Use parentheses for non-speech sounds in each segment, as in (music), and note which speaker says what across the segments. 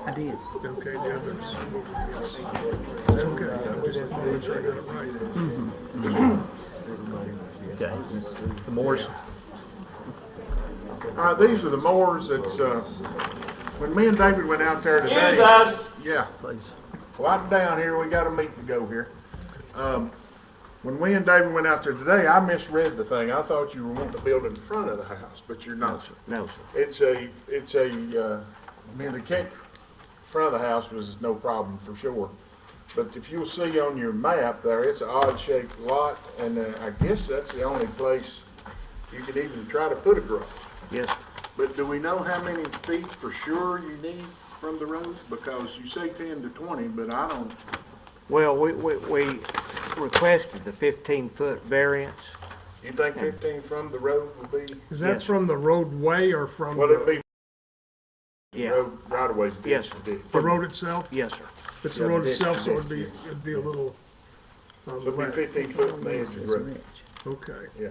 Speaker 1: P.
Speaker 2: Okay, the others voted yes. Okay, I just want to make sure I got it right.
Speaker 3: Okay. The Moores,
Speaker 2: All right, Uh, these are the mowers that's, uh, when me and David went out there today.
Speaker 4: Excuse us.
Speaker 2: Yeah.
Speaker 3: please.
Speaker 2: Well, I'm down here, we got a meet to go here. Um, when we and David went out there today, I misread the thing. I thought you were wanting to build in front of the house, but you're not.
Speaker 1: No, sir.
Speaker 2: It's a, it's a, uh, I mean, the kick, front of the house was no problem for sure. But if you'll see on your map there, it's an odd shaped lot and uh, I guess that's the only place you could even try to put a garage.
Speaker 1: Yes.
Speaker 2: But do we know how many feet for sure you need from the roads? Because you say ten to twenty, but I don't,
Speaker 1: Well, we, we, we requested the fifteen-foot variance.
Speaker 2: you think
Speaker 1: Hmm.
Speaker 2: fifteen from the road would be,
Speaker 1: Yes.
Speaker 5: Is that from the roadway or from
Speaker 2: well, it'd
Speaker 5: the
Speaker 2: be
Speaker 1: Yeah,
Speaker 2: road right away.
Speaker 1: Yes.
Speaker 5: the road itself?
Speaker 1: yes, sir.
Speaker 5: It's the road itself, so it'd be, it'd be a little um, on the
Speaker 2: It'd be
Speaker 5: left.
Speaker 2: fifteen foot from the edge of the road,
Speaker 5: Okay.
Speaker 2: yeah.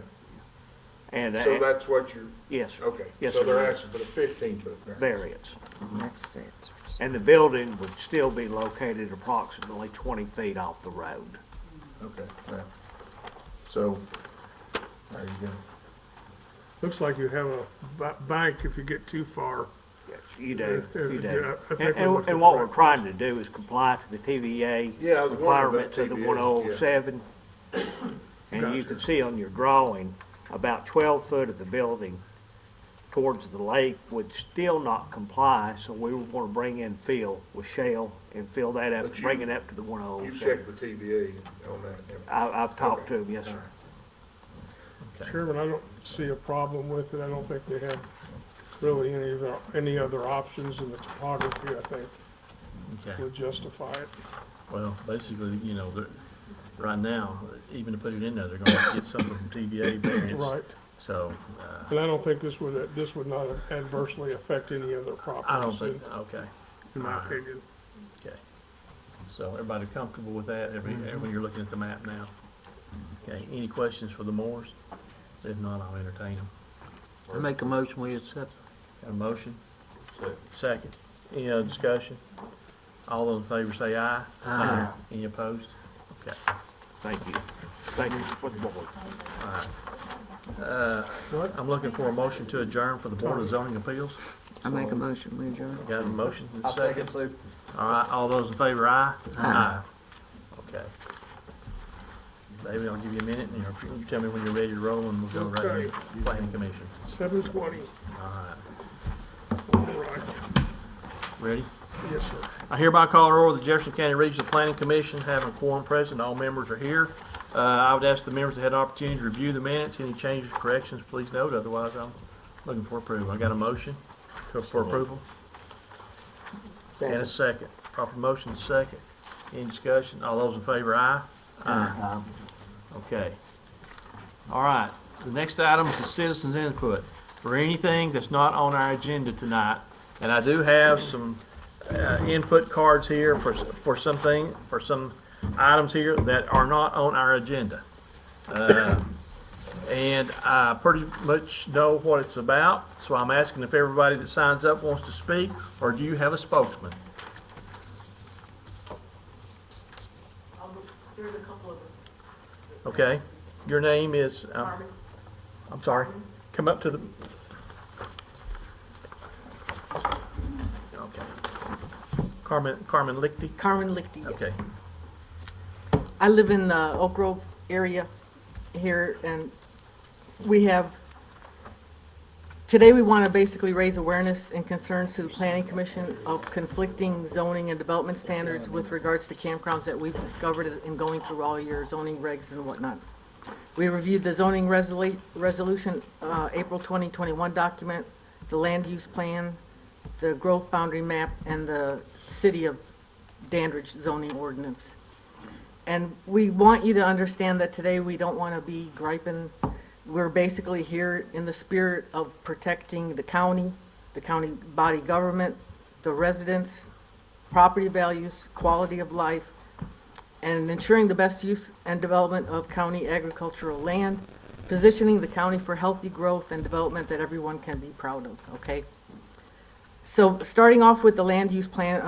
Speaker 1: And,
Speaker 2: So
Speaker 1: uh,
Speaker 2: that's what you're,
Speaker 1: yes, sir.
Speaker 2: Okay,
Speaker 1: Yes,
Speaker 2: so
Speaker 1: sir.
Speaker 2: they're asking for the fifteen foot variance.
Speaker 1: Variance.
Speaker 6: That's fence.
Speaker 1: And the building would still be located approximately twenty feet off the road.
Speaker 2: Okay, yeah. So, there you go.
Speaker 5: Looks like you have a ba- bank if you get too far.
Speaker 1: Yes, You do,
Speaker 5: Yeah,
Speaker 1: you do.
Speaker 5: yeah, I
Speaker 1: And,
Speaker 5: think we looked
Speaker 1: and-
Speaker 5: at
Speaker 1: and
Speaker 5: the
Speaker 1: what we're
Speaker 5: right
Speaker 1: trying to do is comply to the TVA
Speaker 2: Yeah, I was wondering about
Speaker 1: requirements of the
Speaker 2: TVA, yeah.
Speaker 1: one oh seven. And you can see on your drawing, about twelve foot of the building towards the lake would still not comply, so we would wanna bring in fill with shale and fill that up,
Speaker 2: But you-
Speaker 1: bring it up to the one oh
Speaker 2: You
Speaker 1: seven.
Speaker 2: checked the TVA on that.
Speaker 1: I, I've talked to him, yes, sir.
Speaker 5: Chairman, I don't see a problem with it. I don't think they have really any other, any other options in the topography, I think,
Speaker 3: Okay.
Speaker 5: would justify it.
Speaker 3: Well, basically, you know, they're, right now, even to put it in there, they're gonna have to get something from
Speaker 5: (coughs)
Speaker 3: TBA variance.
Speaker 5: Right.
Speaker 3: So, uh,
Speaker 5: And I don't think this would, this would not adversely affect any other
Speaker 3: I don't
Speaker 5: properties, in
Speaker 3: think, okay,
Speaker 5: in my opinion.
Speaker 3: okay. So everybody comfortable with that, every,
Speaker 5: Mm-hmm.
Speaker 3: when you're looking at the map now? Okay, any questions for the Moores? If not, I'll entertain them.
Speaker 7: I make a motion, we accept.
Speaker 3: Got a motion? Second. Any other discussion? All those in favor say aye. Aye. Any opposed? Okay.
Speaker 1: Thank you. Thank you for the board.
Speaker 3: I'm looking for a motion to adjourn for the Board of Zoning Appeals.
Speaker 6: I make a motion, we adjourn.
Speaker 3: Got a motion? I'll second. All right, all those in favor, aye? Aye. Okay. David, I'll give you a minute, and you'll- you tell me when you're ready to roll, and we'll go right into planning commission.
Speaker 5: Seven twenty. Right,
Speaker 3: Ready?
Speaker 5: yes, sir.
Speaker 3: I hereby call to order the Jefferson County Regional Planning Commission, having quorum present, all members are here. Uh, I would ask the members that had an opportunity to review the minutes, any changes, corrections, please note, otherwise I'm looking for approval. I got a motion to- for approval and a
Speaker 6: Second.
Speaker 3: second. Proper motion, second. Any discussion? All those in favor, aye? Aye. Okay. All right, the next item is the citizens' input for anything that's not on our agenda tonight. And I do have some uh, input cards here for, for something, for some items here that are not on our agenda. Uh, And I pretty much know what it's about, so I'm asking if everybody that signs up wants to speak, or do you have a spokesman?
Speaker 8: There's a couple of us.
Speaker 3: Okay, your name is, um, I'm sorry, come up to the. Okay. Carmen, Carmen Lichty?
Speaker 8: Carmen Lichty, yes.
Speaker 3: Okay,
Speaker 8: I live in the Oak Grove area here, and we have, today we want to basically raise awareness and concerns to the planning commission of conflicting zoning and development standards with regards to campgrounds that we've discovered in going through all your zoning regs and whatnot. We reviewed the zoning resolu- resolution, uh, April 2021 document, the land use plan, the growth boundary map, and the city of Dandridge zoning ordinance. And we want you to understand that today we don't want to be griping. We're basically here in the spirit of protecting the county, the county body government, the residents, property values, quality of life, and ensuring the best use and development of county agricultural land, positioning the county for healthy growth and development that everyone can be proud of, okay? So starting off with the land use plan